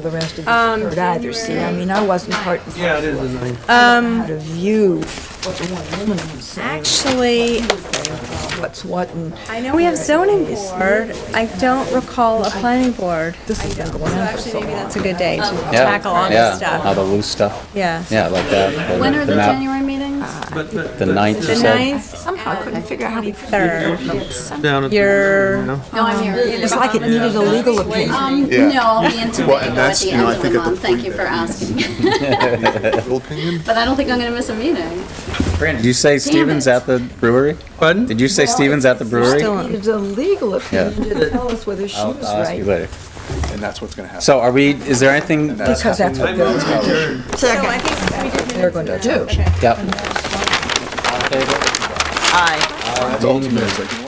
the rest of the Um, board either, see, I mean, I wasn't part of Yeah, it is a nine. Um, the view, what the one woman was saying, actually, what's what, and I know we have zoning board. I don't recall a planning board. this has been going on for so long. That's a good day to Yeah, tackle all yeah, this All stuff. the loose stuff. Yeah. Yeah, like that. When are the map- January meetings? But but- The ninth, you The said? ninth, Somehow I couldn't figure out how to. third. down at the- Your- no. No, I'm here. It was like it needed a legal opinion. Um, Yeah. no, I'll be in Tobago Well, and at that's, the you know, end of I the think at the month. Thank point you for that- asking. Your opinion? But I don't think I'm gonna miss a meeting. Did you say Stevens it. at the brewery? Pardon? Did you say Stevens at the brewery? still- I'll It needed a legal opinion to tell us whether she was I'll ask you right, later. And that's what's gonna happen. So are we, is there anything? because that's what they're, So I think we did they're gonna do. Yep. That's ultimately, it's like,